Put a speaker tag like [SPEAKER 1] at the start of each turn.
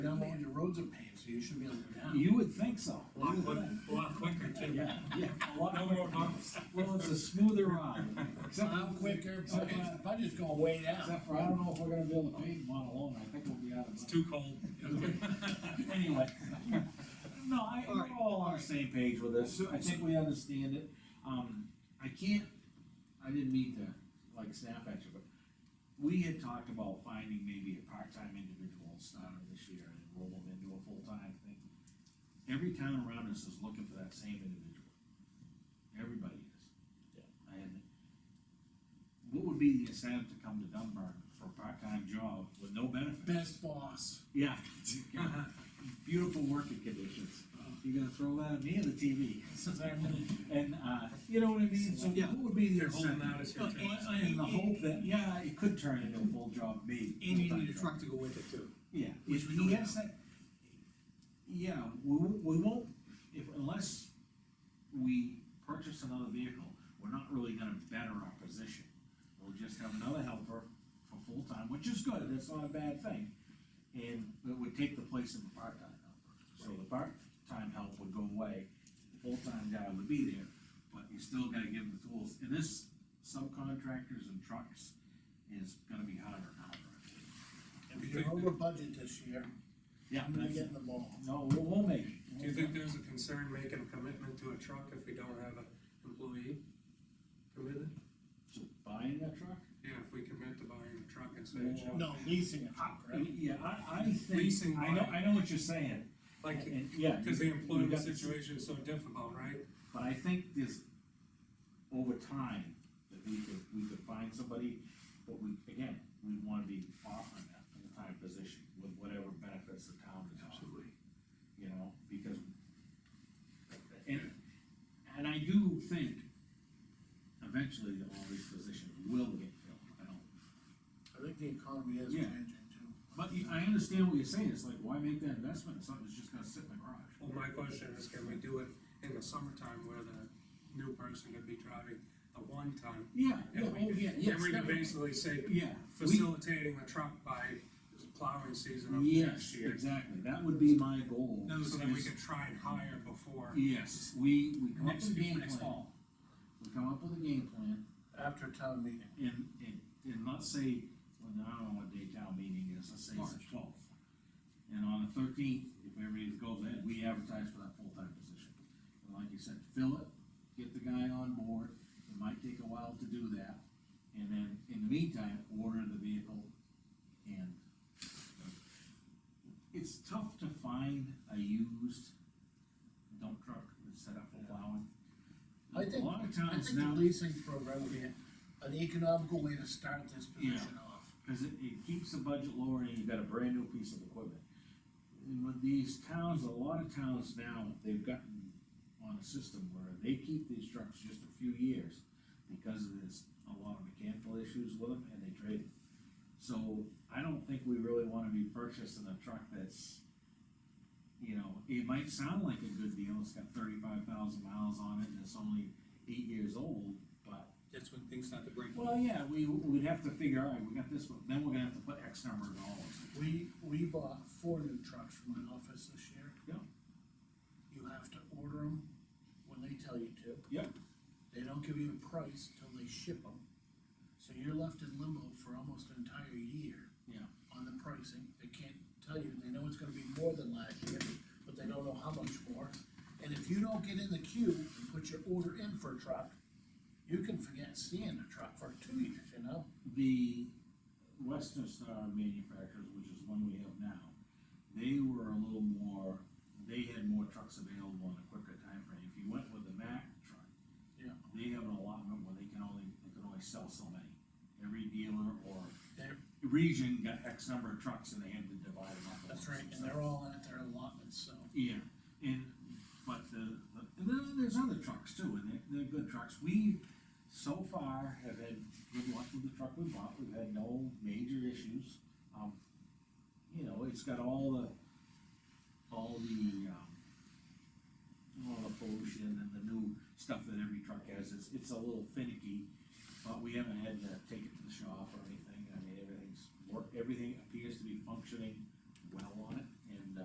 [SPEAKER 1] roads are paved, so you should be able to go down.
[SPEAKER 2] You would think so.
[SPEAKER 3] A lot quicker, a lot quicker too.
[SPEAKER 2] Yeah, yeah.
[SPEAKER 3] A lot more bumps.
[SPEAKER 2] Well, it's a smoother ride, except,
[SPEAKER 1] Plow quicker, budget, budget's going way down.
[SPEAKER 2] except for, I don't know if we're gonna be able to pave one alone, I think we'll be out of
[SPEAKER 3] It's
[SPEAKER 2] money.
[SPEAKER 3] too cold.
[SPEAKER 2] Anyway. No, I,
[SPEAKER 3] All
[SPEAKER 2] we're
[SPEAKER 3] right,
[SPEAKER 2] all on the same page with this, I think we understand it, um, I can't, I didn't mean to, like, snap at you, but we had talked about finding maybe a part-time individual starter this year and roll them into a full-time thing. Every town around us is looking for that same individual. Everybody is. Yeah. And what would be the incentive to come to Dunbar for a part-time job with no benefits?
[SPEAKER 1] Best boss.
[SPEAKER 2] Yeah. Beautiful working conditions. You gonna throw that at me or the TV?
[SPEAKER 1] This is our new-
[SPEAKER 2] And, uh, you know what I mean? So what would be the
[SPEAKER 3] They're holding out
[SPEAKER 2] incentive?
[SPEAKER 3] as your
[SPEAKER 4] Well,
[SPEAKER 3] turn.
[SPEAKER 4] I- I-
[SPEAKER 2] In the hope that, yeah, it could turn into a full job, maybe.
[SPEAKER 4] And you need a truck to go with it too.
[SPEAKER 2] Yeah.
[SPEAKER 4] Which we
[SPEAKER 2] he
[SPEAKER 4] don't
[SPEAKER 2] has that- Yeah, we, won't- we won't, if, unless we purchase another vehicle, we're not really gonna better our position. We'll just have another helper for full-time, which is good, that's not a bad thing. And it would take the place of the part-time helper. So the part-time help would go away, the full-time guy would be there, but you still gotta give him the tools. And this subcontractors and trucks is gonna be harder and harder.
[SPEAKER 1] If you're over budget this year,
[SPEAKER 2] Yeah.
[SPEAKER 1] I'm gonna
[SPEAKER 2] that's-
[SPEAKER 1] get in the ball.
[SPEAKER 2] no, we'll, we'll make it.
[SPEAKER 3] Do you think there's a concern making a commitment to a truck if we don't have an employee committed?
[SPEAKER 2] So Buying that truck?
[SPEAKER 3] Yeah, if we commit to buying a truck and say, it's yours.
[SPEAKER 1] No, leasing a truck, right?
[SPEAKER 2] Yeah, I, I think,
[SPEAKER 3] Leasing
[SPEAKER 2] I know,
[SPEAKER 3] mine.
[SPEAKER 2] I know what you're saying,
[SPEAKER 3] like,
[SPEAKER 2] and, yeah.
[SPEAKER 3] cause the
[SPEAKER 2] you- you
[SPEAKER 3] employment
[SPEAKER 2] got-
[SPEAKER 3] situation is so difficult, right?
[SPEAKER 2] But I think there's, over time, that we could, we could find somebody, but we, again, we wanna be offering that full-time position with whatever benefits the town is offering. You know, because, and, and I do think eventually all these positions will get filled, I don't
[SPEAKER 1] I think the economy is
[SPEAKER 2] Yeah.
[SPEAKER 1] changing too.
[SPEAKER 2] But you- I understand what you're saying, it's like, why make that investment if something's just gonna sit in the garage?
[SPEAKER 3] Well, my question is, can we do it in the summertime where the new person could be driving the one ton?
[SPEAKER 2] Yeah, yeah,
[SPEAKER 3] And we
[SPEAKER 2] oh,
[SPEAKER 3] could-
[SPEAKER 2] yeah,
[SPEAKER 3] And
[SPEAKER 2] yes,
[SPEAKER 3] we could
[SPEAKER 2] definitely.
[SPEAKER 3] basically say
[SPEAKER 2] yeah. we-
[SPEAKER 3] facilitating the truck by plowing season of next
[SPEAKER 2] Yes,
[SPEAKER 3] year.
[SPEAKER 2] exactly, that would be my goal.
[SPEAKER 3] So that we
[SPEAKER 2] is-
[SPEAKER 3] can try and hire before.
[SPEAKER 2] Yes, we, we come up
[SPEAKER 4] Next
[SPEAKER 2] with a
[SPEAKER 4] year,
[SPEAKER 2] game
[SPEAKER 4] next
[SPEAKER 2] plan.
[SPEAKER 4] fall.
[SPEAKER 2] We come up with a game plan
[SPEAKER 1] After town meeting.
[SPEAKER 2] and, and, and let's say, well, I don't know what day town meeting is, let's say it's the twelfth. And on the thirteenth, if everybody goes ahead, we advertise for that full-time position. And like you said, fill it, get the guy on board, it might take a while to do that. And then, in the meantime, order the vehicle and. It's tough to find a used dump truck that's set up for plowing.
[SPEAKER 1] I think-
[SPEAKER 2] A lot of
[SPEAKER 1] I
[SPEAKER 2] times
[SPEAKER 1] think
[SPEAKER 2] now.
[SPEAKER 1] the leasing program would be an economical way to start this position off.
[SPEAKER 2] Cause it, it keeps the budget lower and you've got a brand new piece of equipment. And with these towns, a lot of towns now, they've gotten on a system where they keep these trucks just a few years. Because there's a lot of mechanical issues with them and they trade them. So I don't think we really wanna be purchasing a truck that's. You know, it might sound like a good deal, it's got thirty-five thousand miles on it and it's only eight years old, but.
[SPEAKER 4] That's when things start to break.
[SPEAKER 2] Well, yeah, we, we'd have to figure, all right, we got this one, then we're gonna have to put X number of dollars.
[SPEAKER 1] We, we bought four new trucks from my office this year.
[SPEAKER 2] Yeah.
[SPEAKER 1] You have to order them when they tell you to.
[SPEAKER 2] Yeah.
[SPEAKER 1] They don't give you a price till they ship them. So you're left in limbo for almost an entire year.
[SPEAKER 2] Yeah.
[SPEAKER 1] On the pricing, they can't tell you, they know it's gonna be more than last year, but they don't know how much more. And if you don't get in the queue and put your order in for a truck, you can forget seeing a truck for two years, you know?
[SPEAKER 2] The Western Star manufacturers, which is one we have now, they were a little more, they had more trucks available in a quicker time frame. If you went with the Mack truck,
[SPEAKER 1] Yeah.
[SPEAKER 2] they have an allotment where they can only, they can only sell so many. Every dealer or
[SPEAKER 1] They're,
[SPEAKER 2] region got X number of trucks and they had to divide them up.
[SPEAKER 1] that's right,
[SPEAKER 2] So-
[SPEAKER 1] and they're all in at their allotments, so.
[SPEAKER 2] Yeah, and, but the, the- and then there's other trucks too, and they're, they're good trucks. We, so far, have had good luck with the truck we bought, we've had no major issues. Um, you know, it's got all the, all the, um, all the pollution and the new stuff that every truck has, it's, it's a little finicky. But we haven't had to take it uh, to the shop or anything, I mean, everything's, work, everything appears to be functioning well on it.